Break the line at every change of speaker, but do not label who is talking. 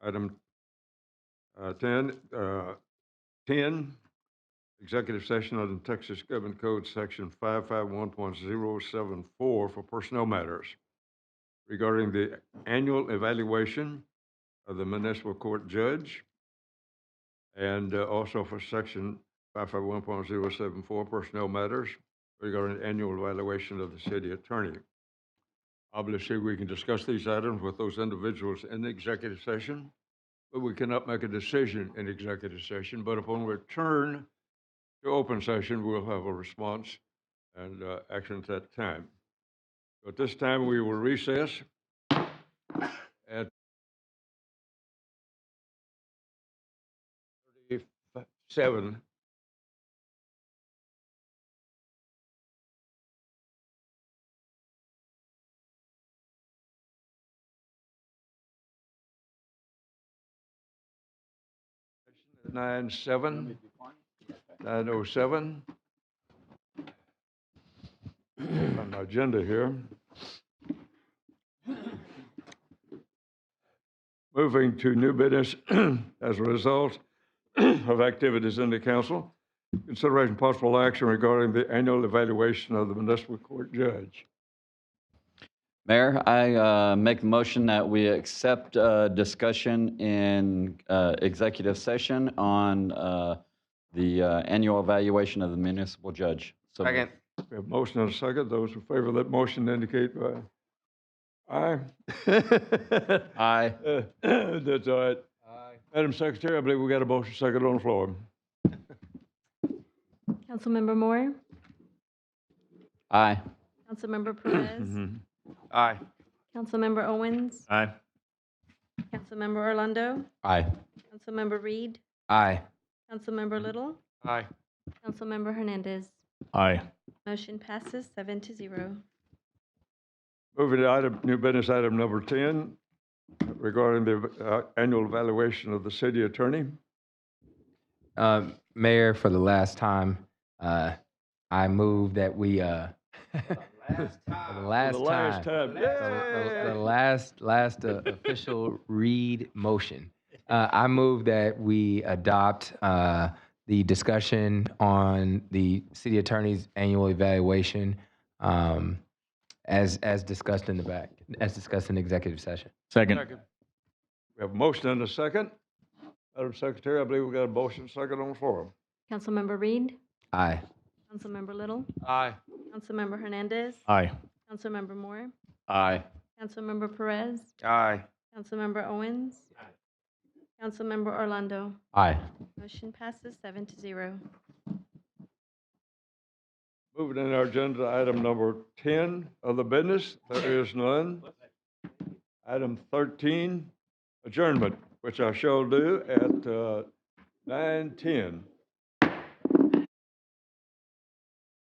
Item uh, 10, uh, 10, executive session under Texas Government Code Section 551.074 for personnel matters regarding the annual evaluation of the municipal court judge and uh, also for Section 551.074 personnel matters regarding the annual evaluation of the city attorney. Obviously, we can discuss these items with those individuals in the executive session, but we cannot make a decision in executive session. But upon return to open session, we'll have a response and uh, action at that time. So At this time, we will recess at 37. Nine oh seven, nine oh seven. On the agenda here. Moving to new business as a result of activities in the council. Consideration possible action regarding the annual evaluation of the municipal court judge.
Mayor, I uh, make a motion that we accept uh, discussion in uh, executive session on uh, the uh, annual evaluation of the municipal judge. So moved.
Second.
We have motion and a second. Those in favor of that motion indicate by aye.
Aye.
Uh, That's all right. Madam Secretary, I believe we got a motion second on the floor.
Councilmember Moore,
Aye.
Councilmember
Mm-hmm.
Perez,
Aye.
Councilmember Owens,
Aye.
Councilmember Orlando,
Aye.
Councilmember Reed,
Aye.
Councilmember Little,
Mm-hmm. Aye.
Councilmember Hernandez.
Aye.
Motion passes seven to zero.
Moving to item, new business item number 10 regarding the uh, annual evaluation of the city attorney.
Uh, Mayor, for the last time, uh, I move that we, uh, for the last
For the last
time.
time.
The- The the
Yay!
last, last uh, official read motion. Uh, I move that we adopt, uh, the discussion on the city attorney's annual evaluation, um, as, as discussed in the back, as discussed in executive session.
Second.
We have a motion and a second. Madam Secretary, I believe we got a motion second on the floor.
Councilmember Reed,
Aye.
Councilmember Little,
Aye.
Councilmember Hernandez,
Aye.
Councilmember Moore,
Aye.
Councilmember Perez,
Aye.
Councilmember Owens, Councilmember Orlando.
Aye.
Motion passes seven to zero.
Moving in our agenda to item number 10 of the business, there is none. Item 13, adjournment, which I shall do at uh, 9:10.